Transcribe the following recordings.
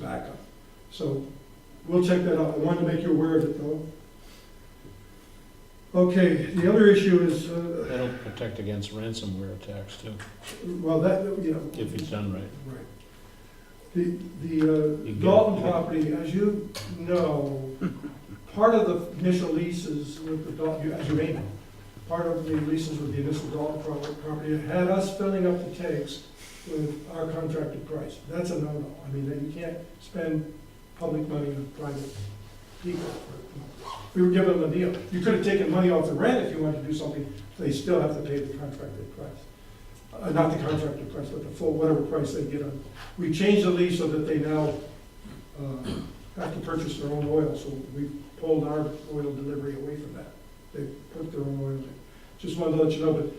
backup. So we'll check that out. I wanted to make you aware of it though. Okay, the other issue is, uh, That'll protect against ransomware attacks too, well, that, you know. if it's done right. Right. The, the You uh, get- Dalton property, as you know, part of the initial leases with the Dalton, as you may know, part of the leases with the initial Dalton pro- property had us filling up the tanks with our contracted price. That's a no-no. I mean, that you can't spend public money on private people. for- We were given a deal. You could have taken money off the rent if you wanted to do something, they still have to pay the contracted price uh, not the contractor price, but the full, whatever price they get on. We changed the lease so that they now uh, have to purchase their own oil, so we pulled our oil delivery away from that. They put their own oil in. Just wanted to let you know, but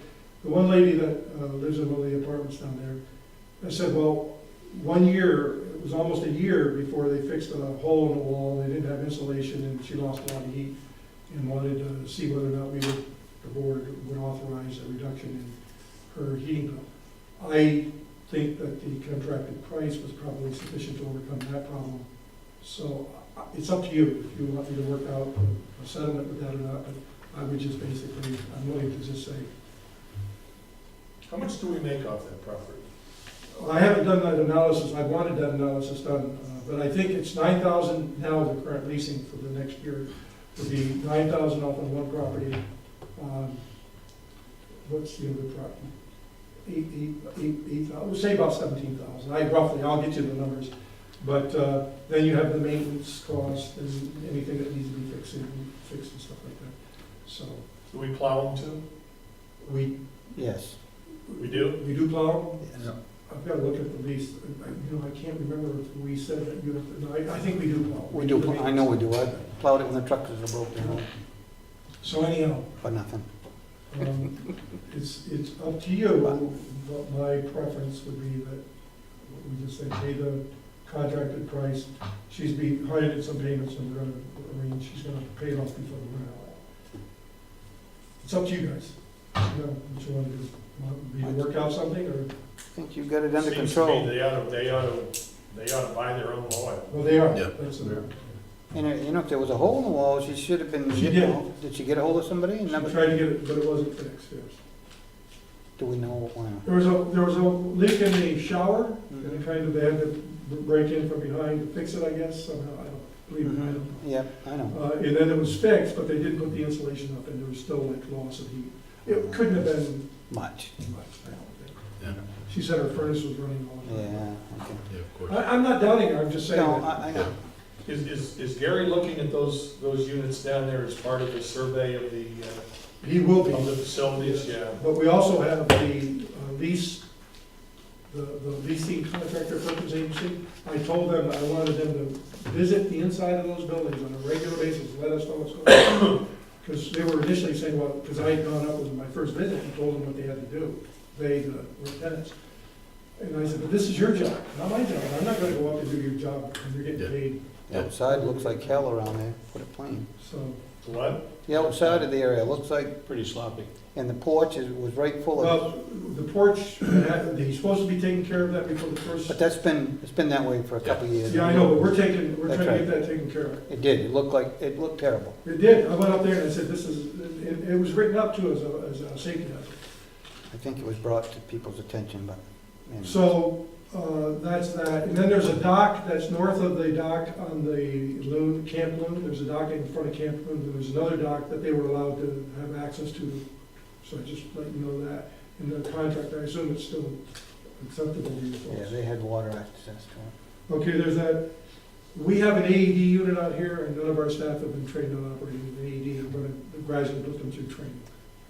the one lady that uh, lives in one of the apartments down there, I said, well, one year, it was almost a year before they fixed a hole in the wall, they didn't have insulation, and she lost a lot of heat, and wanted to see whether or not we would, the board would authorize a reduction in her heating bill. I think that the contracted price was probably sufficient to overcome that problem. So uh, it's up to you if you want me to work out a settlement with that or not, but I would just basically, I'm willing to just say, How much do we make off that property? I haven't done that analysis, I wanted that analysis done, uh, but I think it's nine thousand now, the current leasing for the next year would be nine thousand off on one property. um, What's the other property? Eight, eight, eight, eight thousand, we'll say about seventeen thousand, I roughly, I'll get you the numbers. But uh, then you have the maintenance cost and anything that needs to be fixed and fixed and stuff like that. So Do we plow them too? we, Yes. We do? we do plow, yes. I've got to look at the lease, I- you know, I can't remember if we said that you have, no, I, I think we do plow. We do, pl- I know we do. I plowed it when the tractors were broke down So anyhow, for nothing. um, it's, it's up to you, but my preference would be that we just say pay the contracted price. She's be, hired at some payments and we're gonna arrange, she's gonna pay it off before the winter. It's up to you guys, you know, what you wanna do, want me to work out something or, I think you got it under Seems to me control. They ought to, they ought to, they ought to buy their own oil. well, they are, Yeah. that's it. And, uh, you know, if there was a hole in the wall, she should have been, She you did. know, did she get a hold of somebody? She And tried never, to get it, but it wasn't fixed, yes. do we know when? There was a, there was a leak in the shower, Mhm. and kind of they had to break in from behind to fix it, I guess, somehow, I don't believe it, I don't know. Yep, I know. Uh, and then it was fixed, but they didn't put the insulation up, and there was still like loss of heat. It couldn't have been Much. much, I don't Yeah. think. She said her furnace was running all the time. Yeah, okay. Yeah, of course. I, I'm not doubting her, I'm just saying No, that, I, I know. Is, is, is Gary looking at those, those units down there as part of the survey of the, uh, he will of the be, facilities? Yeah. but we also have the uh, lease, the, the leasing contractor purchase agency. I told them I wanted them to visit the inside of those buildings on a regular basis, let us know what's going on. Because they were initially saying, well, because I had gone up with my first visit and told them what they had to do, they, the lieutenants. And I said, but this is your job, not my job, I'm not gonna go up and do your job, because you're Yeah. getting paid, The outside looks like hell around there, put it plain. so. What? The outside of the area looks like, Pretty sloppy. and the porch is, was right full of, Well, the porch, uh, he's supposed to be taking care of that before the first, but that's been, it's been that way for a couple of years. yeah, I know, but we're taking, we're That's trying to get that taken care of. It did, it looked like, it looked terrible. It did, I went up there and I said, this is, it, it was written up to as a, as a safety hazard. I think it was brought to people's attention, but, you know. So, uh, that's that, and then there's a dock that's north of the dock on the loon, Camp Loon, there's a dock in front of Camp Loon, and there's another dock that they were allowed to have access to, so I just let you know that, in the contract, I assume it's still acceptable to you Yeah, folks. they had water access to Okay, there's that, we have an AED unit out here, and none of our staff have been trained on operating an AED, I'm gonna gradually put them through training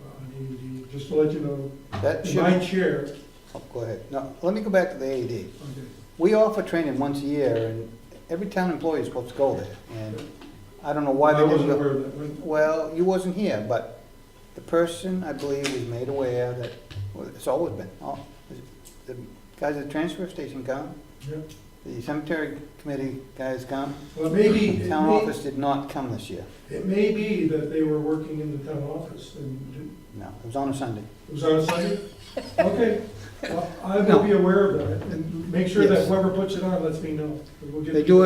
uh, on AED, just to let you know, it. That In should, my chair, oh, go ahead. No, let me go back to the AED. okay, We offer training once a year, and every town employee is supposed to go there, and I don't know why I they didn't wasn't go. aware of that, When- Well, you wasn't here, but the person, I believe, was made aware that, well, it's always been, oh, the guys at the transfer station come, yeah. the cemetery committee guys come, Well, maybe, it town may, office did not come this year, it may be that they were working in the town office and no, it was on a Sunday. it was on a Sunday? Okay, Well, I will be aware of that, and make sure that Yes. whoever puts it on lets me know. 'cause we'll get- They do